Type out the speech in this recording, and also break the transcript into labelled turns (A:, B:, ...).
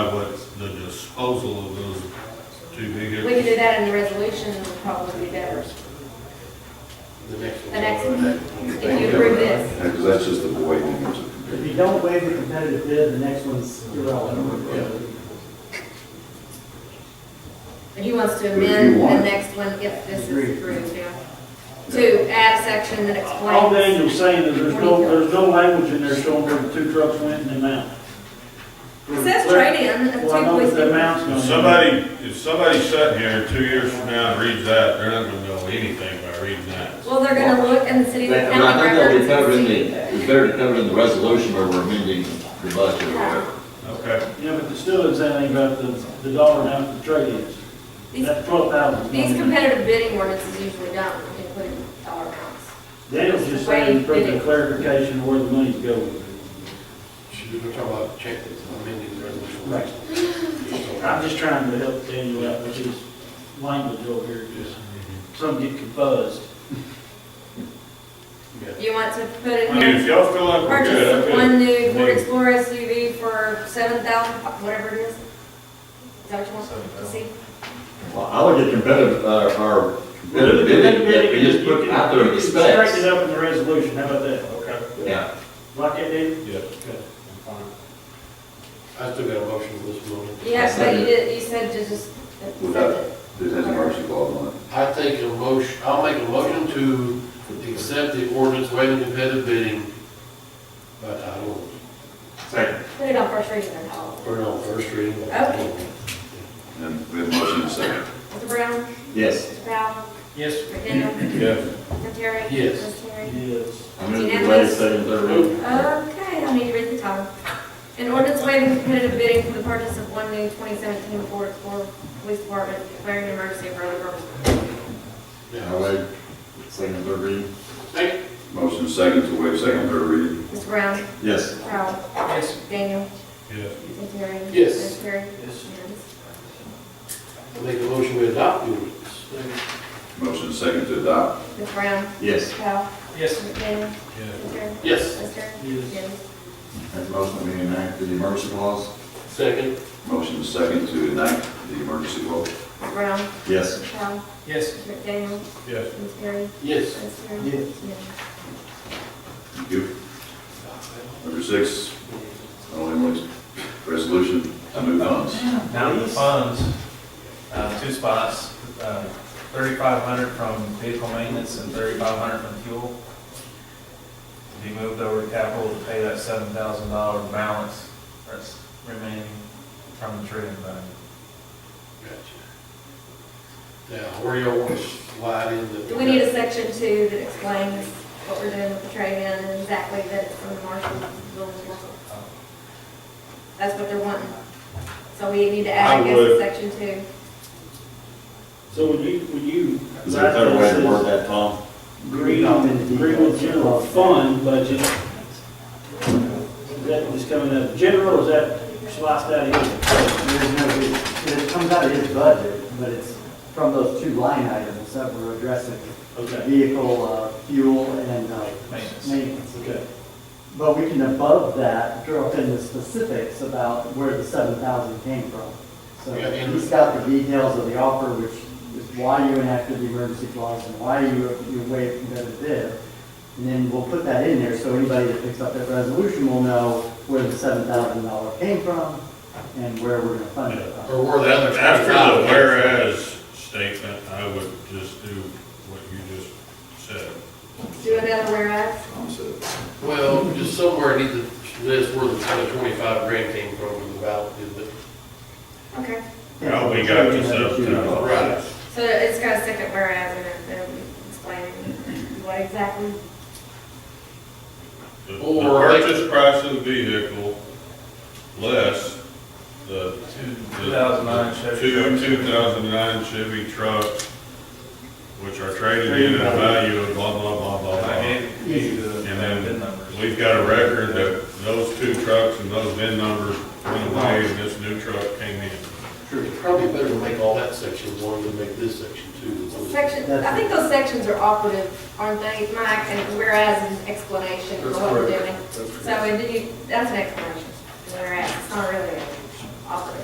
A: disposal of those two
B: We could
A: vehicles.
B: do that in the resolution, it would probably be better.
C: The next
B: The
C: one.
B: next, if you approve this,
D: Because that's just the way things are.
E: If you don't waive the competitive bid, the next one's irrelevant.
B: he wants to
D: If you
B: amend the
D: want.
B: next one if this
E: Agree.
B: is approved, yeah. To add a section that
F: All
B: explains.
F: Daniel's saying is there's no, there's no language in there showing where the two trucks went and the amount.
B: It says trade-in, of
F: Well, I know that the amount's
B: two
F: gonna.
A: If
F: be-
A: somebody, if somebody sitting here two years from now and reads that, they're not gonna know anything by reading that.
B: Well, they're gonna look in the city
C: But
B: and
C: but I
B: county
C: think that'll be
B: records
C: covered in
B: and
C: the,
B: see.
C: it's better to cover it in the resolution where we're amending the budget or whatever.
A: Okay,
F: Yeah, but it still is anything about the, the dollar amount of the trade-ins.
B: These-
F: That twelve thousand.
B: These competitive bidding ordinances usually don't include dollar amounts.
F: Daniel's just saying for the clarification of where the money's going.
C: Should we talk about check amending the resolution?
F: Right. I'm just trying to help Daniel out with his language over here, just some get confused.
B: You want to put it
A: I mean, if
B: here,
A: y'all feel like we're good, I
B: purchase
A: could.
B: one new Ford Explorer SUV for seven thousand, whatever it is? Is that what you want to see?
C: Well, I would get competitive, uh, our competitive bidding, that we just put out there in the
F: Straighten it
C: specs.
F: up in the resolution, how about that? Okay.
C: Yeah,
F: Like it did?
A: Yeah.
C: I still got a motion for this morning.
B: Yeah, but you did, you said to just,
D: Without- This has a mercy clause on it.
C: I take a motion, I'll make a motion to accept the ordinance waiving competitive bidding by title only.
A: Second.
B: put it on first reading and all.
C: Or no, first reading. by title
B: Okay.
D: And we have a motion and a second.
B: Mr. Brown,
C: Yes.
B: Mr. Powell,
F: Yes.
B: Mr. Daniel,
A: Yes,
B: Mr. Terry.
C: Yes.
B: Mr. Terry.
F: Yes.
C: I'm going to waive second, third reading.
B: Uh-huh. Okay, I need to read the title. An ordinance waiving competitive bidding for the purchase of one new 2017 Ford Explorer Police Department declaring an emergency for other purposes.
C: Yeah,
D: I waive second, third reading.
C: Second.
D: Motion and second to waive second, third reading.
B: Mr. Brown,
C: Yes.
B: Mr. Powell,
F: Yes.
B: Daniel,
A: yes.
B: Mr. Terry.
C: Yes.
B: Mr. Terry.
F: Yes.
C: I make a motion we adopt the ordinance.
D: Motion and second to adopt.
B: Mr. Brown,
C: Yes.
B: Mr. Powell,
F: Yes.
B: Mr. Daniel,
A: Yes.
B: Mr. Terry.
C: Yes.
B: Mr. Terry.
F: Yes.
B: Yes.
D: Make a motion to enact the emergency clause.
C: Second.
D: Motion and second to enact the emergency clause.
B: Mr. Brown,
D: Yes.
B: Mr. Powell,
F: Yes.
B: Mr. McDaniel,
A: Yes.
B: Mr. Terry.
C: Yes.
B: Mr. Terry.
F: Yes.
B: Yes.
D: Thank you. Number six, on Emily's resolution to move funds.
G: Now the funds, uh, two spots, uh, thirty-five hundred from vehicle maintenance and thirty-five hundred from fuel. To be moved over to capital to pay that seven thousand dollar balance that's remaining from the trade-in value.
C: Gotcha. Now, where y'all want to slide in the.
B: Do we need a section two that explains what we're doing with the trade-in and exactly that it's from the marshal building marshal? That's what they're wanting. So we need to add, I
A: I
B: guess,
A: would.
B: a section two.
F: So when you, when you.
D: Is there a better way to word that, Tom?
F: Greenwood, Greenwood General Fund budget. Is that was coming out of general, or is that sliced out of
E: There's no, it comes out of his budget, but it's from those two line items that we're addressing,
F: here? Okay,
E: vehicle, uh, fuel and, uh,
G: Maintenance.
E: maintenance.
F: okay.
E: But we can above that, drill in the specifics about where the seven thousand came from. So
C: Yeah, and-
E: he's got the details of the offer, which is why you enacted the emergency clause and why you, you waived competitive bid. And then we'll put that in there, so anybody that picks up that resolution will know where the seven thousand dollar came from and where we're gonna fund it. from.
C: Or where the other.
A: After the whereas statement, I would just do what you just said.
B: Do another whereas.
D: Tom said.
C: Well, just somewhere it needs to list where the kind of twenty-five grand came from with the ballot, is it?
B: Okay.
A: Well, we got this up to.
C: Right.
B: So it's got a second whereas in it, that would explain what exactly.
A: The the
C: Or-
A: purchase price of the vehicle less the.
G: Two thousand nine Chevy.
A: Two,
G: truck.
A: two thousand nine Chevy trucks, which are traded in at a value of blah, blah, blah, blah,
G: I
A: blah.
G: gave you the
A: And
G: VIN
A: then
G: numbers.
A: We've got a record that those two trucks and those VIN numbers went away and this new truck came in.
C: Sure, it's probably better to make all that section one than make this section two.
B: Section, I think those sections are operative, aren't they, Mike? And whereas is an explanation of what we're doing. So if you, that's an explanation, whereas, it's not really a